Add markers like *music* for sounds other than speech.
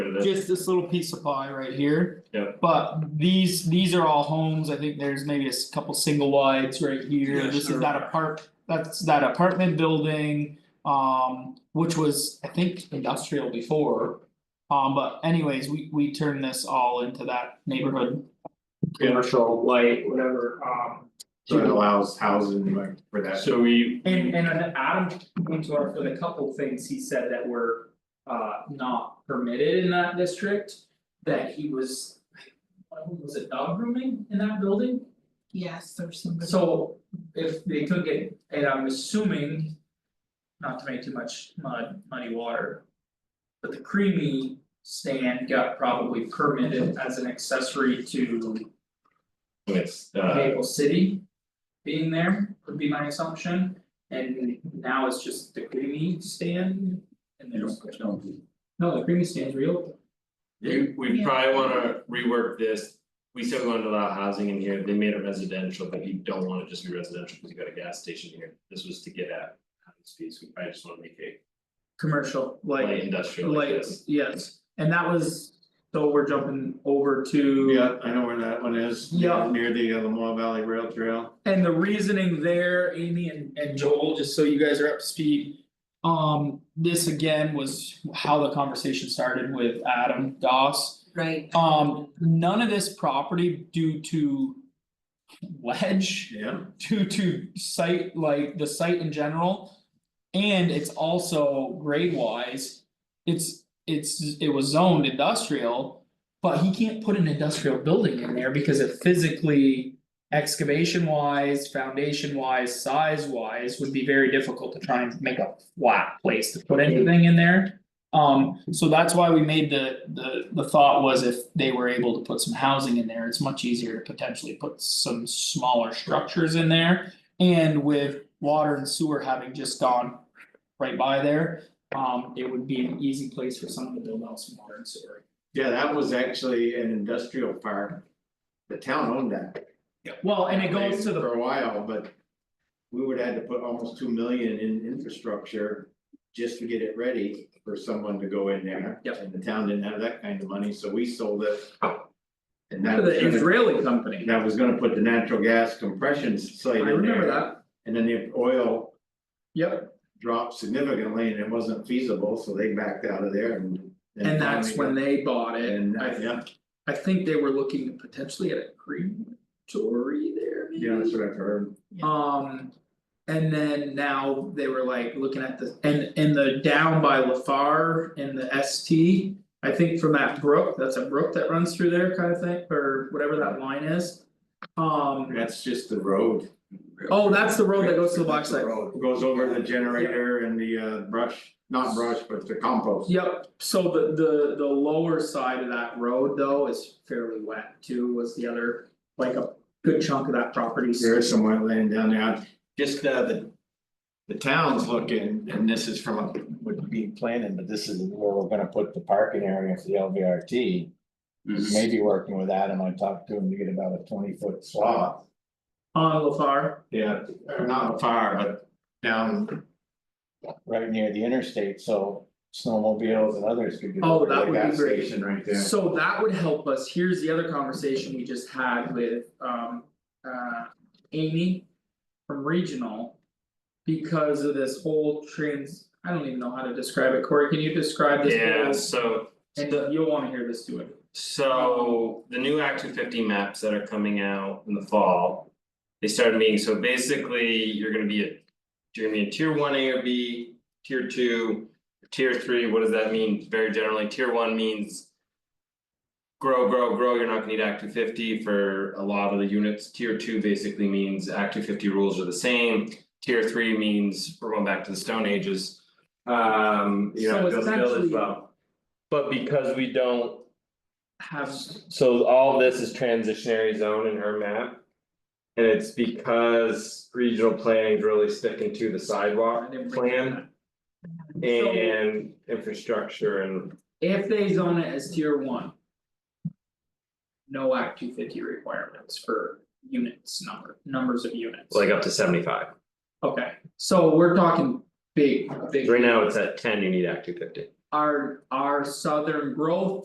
it. just this little piece of pie right here. Yep. But these, these are all homes, I think there's maybe a s- couple single wides right here, Yeah, this is sure. that apart, that's that apartment building. Um, which was, I think, industrial before. Um, but anyways, we we turned this all into that neighborhood. commercial, light, whatever, um. So it allows housing like for that. So we, And and an Adam went to our, for the couple things he said that were uh not permitted in that district. That he was, what was it dog grooming in that building? Yes, there's somebody. So if they took it, and I'm assuming. Not to make too much mud, muddy water. But the creamy stand got probably permitted as an accessory to it's uh, Maple City. Being there would be my assumption, and now it's just the creamy stand and there's. No, the creamy stand's real, we we Yeah. probably wanna rework this. We said we wanted to allow housing in here, they made it residential, but you don't wanna just be residential, because you got a gas station here, this was to get at. housing Speeds, we probably just wanna make it commercial, light like, industrial like like, this. yes, and that was, so we're jumping over to. Yeah, I know where that one is. Yeah. Near the uh, Lamoille Valley Rail Trail. And the reasoning there, Amy and and Joel, just so you guys are up to speed, Um, this again was how the conversation started with Adam Doss. Right. Um, none of this property due to. Ledge, Yeah. *laughs* due to site, like the site in general. And it's also grade wise, it's, it's, it was zoned industrial. But he can't put an industrial building in there because it physically, excavation wise, foundation wise, size wise, would be very difficult to try and make a flat place to put anything in there. Um, so that's why we made the, the, the thought was if they were able to put some housing in there, it's much easier to potentially put some smaller structures in there. And with water and sewer having just gone right by there, um, it would be an easy place for someone to build out some water and sewer. Yeah, that was actually an industrial park. The town owned that. well, and it goes to the, For a while, but. We would have had to put almost two million in infrastructure. Just to get it ready for someone to go in there. Yep. And the town didn't have that kind of money, so we sold it. And that to was the gonna, Israeli company, that was gonna put the natural gas compression I site in there. remember that, And then the oil yep, dropped significantly and it wasn't feasible, so they backed out of there and. and that's when finally- they bought it, And, uh, I yeah, I think they were looking potentially at a crematory there maybe. yeah, that's what I've heard. Um, and then now they were like looking at the, and and the down by Lafar and the ST. I think from that brook, that's a brook that runs through there kind of thing, or whatever that line is. Um, That's just the road. oh, that's the road that goes to the black site. It Goes over the generator and the uh brush, not brush, but the compost. Yep, so the the the lower side of that road though is fairly wet too, was the other, like a good chunk of that property. There is some wetland down there, just uh the. The town's looking, and this is from, a- would be planning, but this is where we're gonna put the parking area for the LVRT. Mm-hmm. Maybe working with Adam, I talked to him to get about a twenty foot slot. On Lafar, yeah, or not far, but down, Right near the interstate, so snowmobiles and others could get. Oh, over that to the would be gas great. Station right there. So that would help us, here's the other conversation we just had with um uh Amy from regional. Because of this whole trans, I don't even know how to describe it, Corey, can you describe this? Yeah, whole- so And you'll wanna hear this too. So the new Act two fifty maps that are coming out in the fall. They started meeting, so basically you're gonna be a, you're gonna be a tier one A or B, tier two. Tier three, what does that mean? Very generally, tier one means. Grow, grow, grow, you're not gonna need Act two fifty for a lot of the units, tier two basically means Act two fifty rules are the same. Tier three means we're going back to the stone ages. Um, you know, So build a village essentially- well. But because we don't Have, so all this is transitionary zone in her map. And it's because regional planning is really sticking to the I sidewalk didn't bring that plan up. and infrastructure and. if they zone it as tier one. No act two fifty requirements for units number, numbers of units. Like up to seventy five, Okay, so we're talking big, big. right now it's at ten, you need Act two fifty. our our southern growth